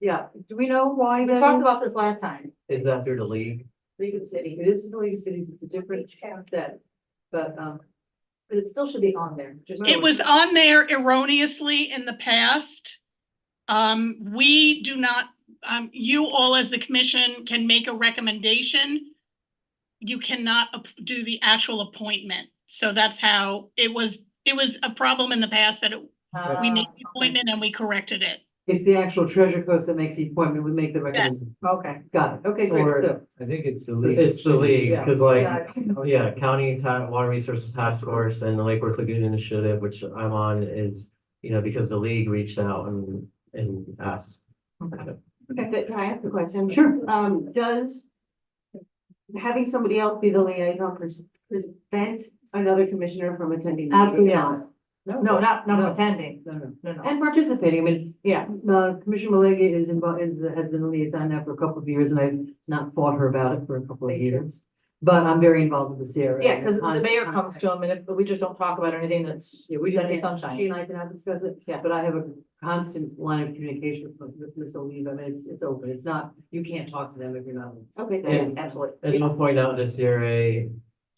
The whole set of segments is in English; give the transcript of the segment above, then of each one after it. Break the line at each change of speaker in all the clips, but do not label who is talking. Yeah, do we know why
We
that
talked
is?
about this last time,
Is that through the league?
League of City.
It is the League of Cities, it's a different
town.
set, but, um,
But it still should be on there, just.
It was on there erroneously in the past. Um, we do not, um, you all as the commission can make a recommendation. You cannot ap- do the actual appointment. So that's how it was, it was a problem in the past that it-
uh,
we made the appointment and we corrected it.
it's the actual treasure coast that makes the appointment, we make the recommendation.
Okay.
Got it, okay,
Or-
great, so.
I think it's the league.
It's the league,
Yeah.
because like,
Yeah.
oh yeah, county and time, water resources task force and the Lake Worth Lagoon Initiative, which I'm on is, you know, because the league reached out and, and asked.
Okay, can I ask a question?
Sure.
Um, does having somebody else be the liaison pers- prevent another commissioner from attending? the meeting?
Absolutely not.
No, not,
No.
not attending,
No, no.
no, no.
And participating, I mean,
Yeah,
uh, Commissioner Malega is involved, is, has been the liaison now for a couple of years, and I've not fought her about it for a couple of
Thank you.
years. But I'm very involved with the CRA.
yeah, because the
On-
mayor
on-
comes to them and if, but we just don't talk about anything that's,
Yeah, we just,
Then it's
can't-
sunshine.
she and I cannot discuss it,
Yeah.
but I have a constant line of communication with with Ms. Oliva, and it's, it's open, it's not, you can't talk to them if you're not.
okay,
Yeah.
then, absolutely.
And I'll point out the CRA,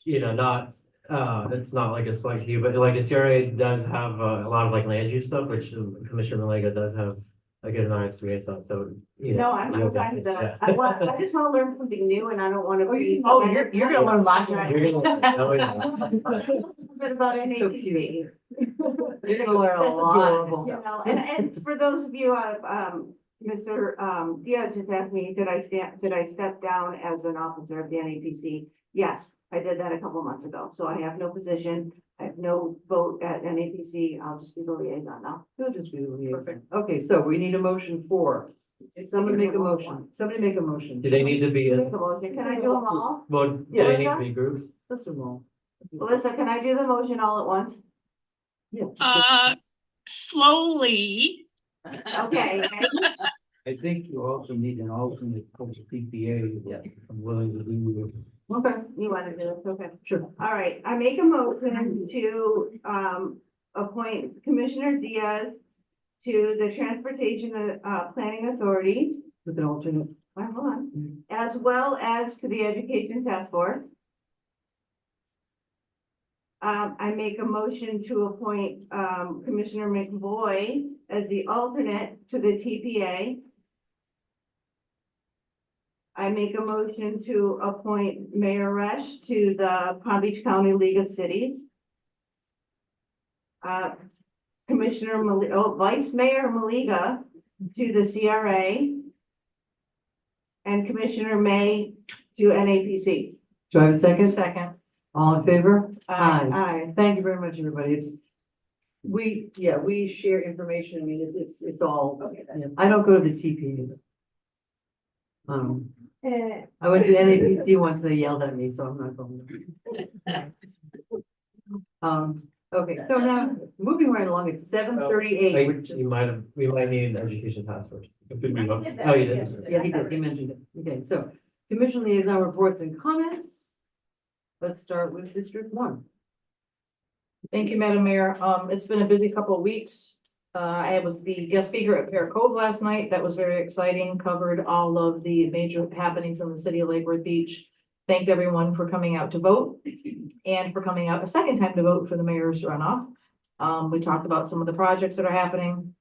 you know, not, uh, it's not like a select few, but like the CRA does have uh, a lot of like land use stuff, which Commissioner Malega does have a good amount of experience on, so. you know,
No, I'm,
you'll
I'm fine with
definitely-
that. I want, I just want to learn something new and I don't want to
Oh, you-
be.
oh, you're-
you're gonna learn lots.
yeah. You're gonna- that way-
Bit about
She's so cute.
NAPC.
You're gonna learn a
That's
lot.
You know, and, and for those of you, uh, um, Mr. Um, Diaz just asked me, did I stand, did I step down as an officer of the NAPC? Yes, I did that a couple months ago, so I have no position, I have no vote at NAPC, I'll just be the liaison now.
He'll just be the liaison.
Perfect.
Okay, so we need a motion for, someone make a motion, somebody make a motion.
Do they need to be,
Make a
in-
motion, can I do them all?
well, do they need to be grouped?
Let's do them all.
Melissa, can I do the motion all at once?
Yeah.
Uh, slowly,
Okay,
I think you also need an alternate for the PPA.
Yeah.
I'm willing to do it.
Okay,
you want to do this, okay.
sure.
All right, I make a motion to, um, appoint Commissioner Diaz to the Transportation, uh, Planning Authority,
With an alternate.
wait, hold on, as well as to the Education Task Force. Um, I make a motion to appoint, um, Commissioner McVoy as the alternate to the TPA. I make a motion to appoint Mayor Resch to the Palm Beach County League of Cities. Uh, Commissioner, Mali- oh, Vice Mayor Maliga to the CRA. And Commissioner May to NAPC.
Do I have a second?
Second.
All in favor? Aye.
Aye.
Thank you very much, everybody. It's, we, yeah, we share information. I mean, it's, it's, it's all,
Okay.
yeah. I don't go to the TP. either. Um,
Eh,
I went to NAPC once and they yelled at me, so I'm not going. Um, okay, so now, moving right along, it's seven thirty-eight,
Like,
which is,
you might have, we might need an education passport. Oh,
that,
you did?
yes.
yeah, he did, he mentioned it. Okay, so commission liaison reports and comments. Let's start with District One.
Thank you, Madam Mayor. Um, it's been a busy couple of weeks. Uh, I was the guest speaker at Pear Cove last night. That was very exciting, covered all of the major happenings in the city of Lake Worth Beach. Thanked everyone for coming out to vote and for coming out a second time to vote for the mayor's runoff. Um, we talked about some of the projects that are happening.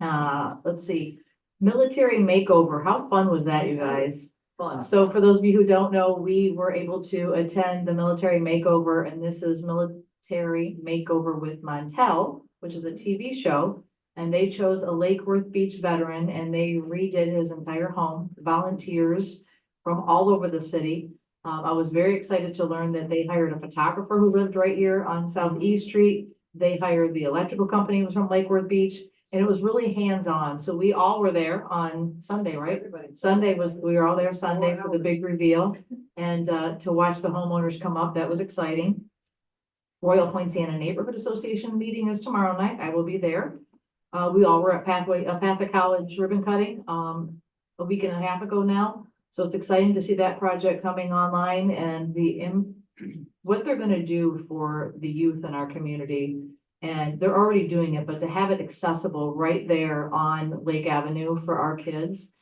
Uh, let's see, military makeover. How fun was that, you guys?
Fun.
So for those of you who don't know, we were able to attend the military makeover and this is military makeover with Montel, which is a TV show. And they chose a Lake Worth Beach veteran and they redid his entire home, volunteers from all over the city. Um, I was very excited to learn that they hired a photographer who lived right here on South E Street. They hired the electrical company who was from Lake Worth Beach and it was really hands-on. So we all were there on Sunday, right?
Everybody.
Sunday was, we were all there Sunday for the big reveal and uh, to watch the homeowners come up, that was exciting. Royal Poinciana Neighborhood Association meeting is tomorrow night. I will be there. Uh, we all were at Pathway, uh, Patha College ribbon cutting, um, a week and a half ago now. So it's exciting to see that project coming online and the, im- what they're gonna do for the youth in our community And they're already doing it, but to have it accessible right there on Lake Avenue for our kids